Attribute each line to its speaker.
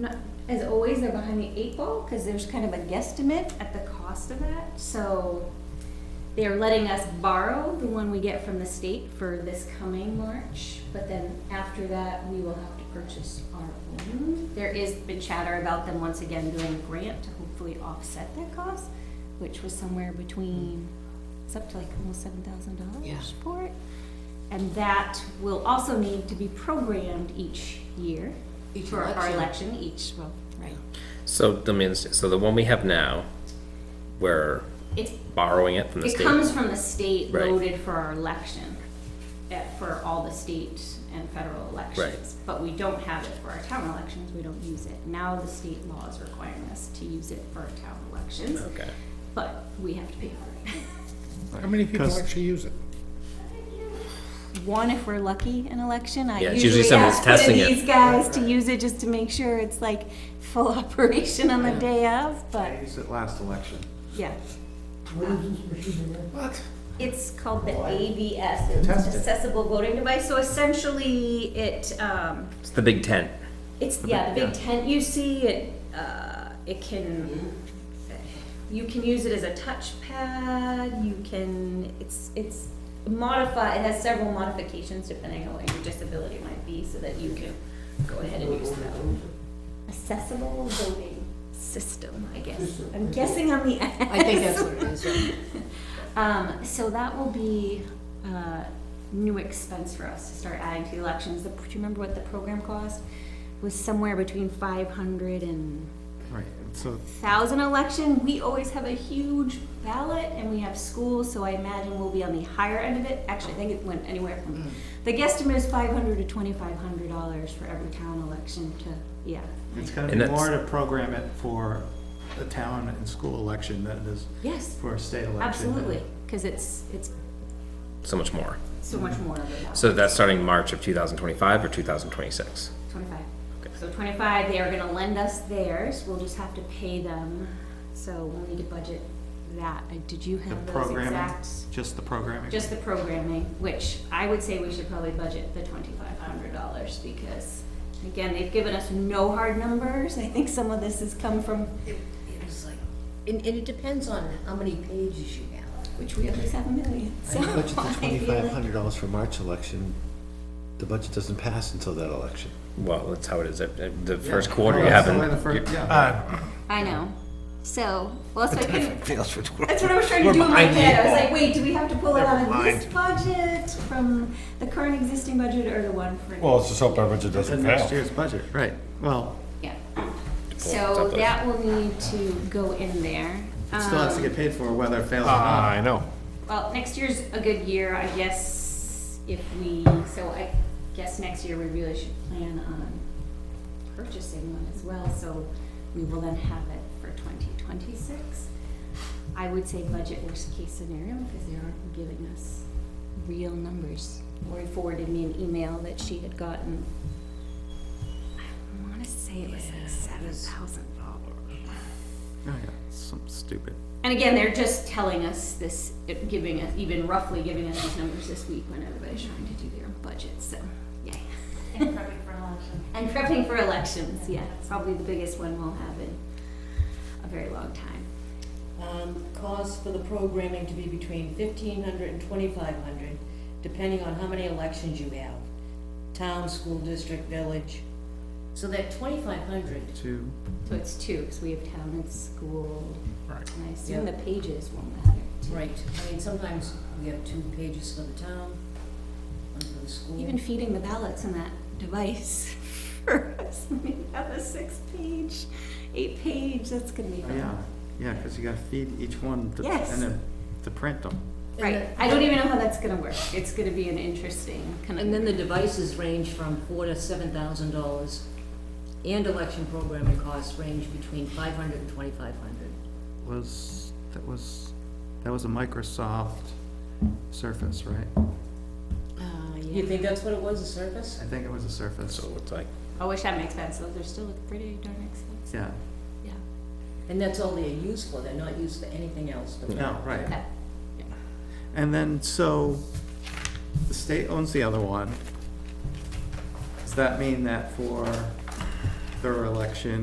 Speaker 1: not, as always, they're behind the eight ball, because there's kind of a guesstimate at the cost of that, so they're letting us borrow the one we get from the state for this coming March, but then after that, we will have to purchase our own. There is been chatter about them once again doing a grant to hopefully offset that cost, which was somewhere between, it's up to like almost seven thousand
Speaker 2: Yeah.
Speaker 1: dollars for it. And that will also need to be programmed each year
Speaker 2: Each
Speaker 1: for our
Speaker 2: election.
Speaker 1: election, each, well, right.
Speaker 3: So the means, so the one we have now, we're
Speaker 1: It's
Speaker 3: borrowing it from the
Speaker 1: It
Speaker 3: state.
Speaker 1: comes from the state
Speaker 3: Right.
Speaker 1: loaded for our election, eh, for all the state and federal elections. But we don't have it for our town elections, we don't use it. Now the state law is requiring us to use it for our town elections,
Speaker 3: Okay.
Speaker 1: but we have to pay for
Speaker 4: How many people
Speaker 5: 'Cause-
Speaker 4: actually use it?
Speaker 1: it. One, if we're lucky in election, I
Speaker 3: Yeah, it's usually
Speaker 1: usually
Speaker 3: someone's
Speaker 1: ask one of
Speaker 3: testing it.
Speaker 1: these guys to use it just to make sure it's like full operation on the day of,
Speaker 5: I
Speaker 1: but,
Speaker 5: used it last election.
Speaker 1: yeah.
Speaker 4: What?
Speaker 1: It's called the AVS, it's Accessible Voting Device, so essentially it, um,
Speaker 3: It's the big tent.
Speaker 1: it's, yeah, the big tent you see, it, uh, it can, you can use it as a touchpad, you can, it's, it's modify, it has several modifications depending on what your disability might be, so that you can go ahead and use that. Accessible voting system, I guess, I'm guessing on the S.
Speaker 2: I think that's what it is, yeah.
Speaker 1: Um, so that will be a new expense for us to start adding to the elections. The- Do you remember what the program cost? Was somewhere between five hundred and
Speaker 5: Right, and so
Speaker 1: thousand election. We always have a huge ballot and we have schools, so I imagine we'll be on the higher end of it. Actually, I think it went anywhere from, the guesstimate is five hundred to twenty-five hundred dollars for every town election to, yeah.
Speaker 5: it's gonna
Speaker 3: And
Speaker 5: be
Speaker 3: that's-
Speaker 5: more to program it for the town and school election than it is
Speaker 1: Yes,
Speaker 5: for a state election.
Speaker 1: absolutely, because it's, it's
Speaker 3: So much more.
Speaker 1: so much more of a ballot.
Speaker 3: So that's starting March of 2025 or 2026.
Speaker 1: 25.
Speaker 3: Okay.
Speaker 1: So 25, they are gonna lend us theirs, we'll just have to pay them, so we'll need to budget that. Uh, Did you
Speaker 5: The
Speaker 1: have those
Speaker 5: programming,
Speaker 1: exact?
Speaker 5: just the programming.
Speaker 1: Just the programming, which I would say we should probably budget the $2,500 because, again, they've given us no hard numbers. I think some of this has come from,
Speaker 2: It it was like, and, and it depends on how many pages you have.
Speaker 1: which we at least have a million,
Speaker 6: I
Speaker 1: so.
Speaker 6: budgeted
Speaker 1: I
Speaker 6: the
Speaker 1: feel like-
Speaker 6: twenty-five hundred dollars for March election. The budget doesn't pass until that election.
Speaker 3: Well, that's how it is. Uh, uh, The
Speaker 5: Yeah.
Speaker 3: first quarter
Speaker 5: Oh,
Speaker 3: you
Speaker 5: that's the
Speaker 3: haven't.
Speaker 5: way the fir- yeah.
Speaker 1: I know, so, well, that's why I couldn't,
Speaker 6: Fails for twelve.
Speaker 1: That's what I was trying to do in my
Speaker 6: behind
Speaker 1: head. I was
Speaker 6: eight
Speaker 1: like, wait, do we have to pull it
Speaker 6: Never
Speaker 1: out of
Speaker 6: mind.
Speaker 1: this budget from the current existing budget or the one for?
Speaker 7: let's just hope our budget
Speaker 5: The next year's budget, right, well,
Speaker 1: Yeah.
Speaker 3: Pull
Speaker 1: So
Speaker 3: something.
Speaker 1: that will need to go in there.
Speaker 5: it still has to
Speaker 1: Um,
Speaker 5: get paid for whether it fails or
Speaker 7: Ah, I
Speaker 5: not.
Speaker 7: know.
Speaker 1: Well, next year's a good year, I guess, if we, so I guess next year we really should plan on purchasing one as well, so we will then have it for twenty twenty-six. I would say budget worst case scenario, because they aren't giving us real numbers. Lori forwarded me an email that she had gotten, I wanna say it was like seven thousand dollars.
Speaker 5: Oh, yeah, some stupid.
Speaker 1: And again, they're just telling us this, giving us, even roughly giving us these numbers this week when everybody's trying to do their own budgets, so, yay. And prepping for elections. And prepping for elections, yeah, it's probably the biggest one we'll have in a very long time.
Speaker 2: Um, cost for the programming to be between fifteen hundred and twenty-five hundred, depending on how many elections you have. Town, school district, village. So that twenty-five hundred,
Speaker 5: Two,
Speaker 1: So it's two, because we have town and school,
Speaker 7: Right.
Speaker 1: and I assume the pages won't matter. too.
Speaker 2: right, I mean, sometimes we have two pages for the town, one for the school.
Speaker 1: Even feeding the ballots in that device for us, we have a six-page, eight-page, that's gonna be
Speaker 5: oh,
Speaker 1: fun.
Speaker 5: yeah, yeah, because you gotta feed each one to-
Speaker 1: Yes.
Speaker 5: and then to print them.
Speaker 2: And
Speaker 1: Right,
Speaker 2: the-
Speaker 1: I don't even know how that's gonna work. It's gonna be an interesting kind of.
Speaker 2: And then the devices range from four to seven thousand dollars, and election programming costs range between five hundred and twenty-five hundred.
Speaker 5: was, that was, that was a Microsoft Surface, right?
Speaker 1: Oh,
Speaker 2: You think that's what it was, a service?
Speaker 5: I think it was a Surface,
Speaker 3: So it looks like
Speaker 1: I wish that makes sense, though. They're still pretty darn expensive.
Speaker 5: yeah,
Speaker 1: Yeah.
Speaker 2: And that's all they're used for, they're not used for anything else but that.
Speaker 5: no, right.
Speaker 1: Okay.
Speaker 5: And then, so, the state owns the other one. Does that mean that for their election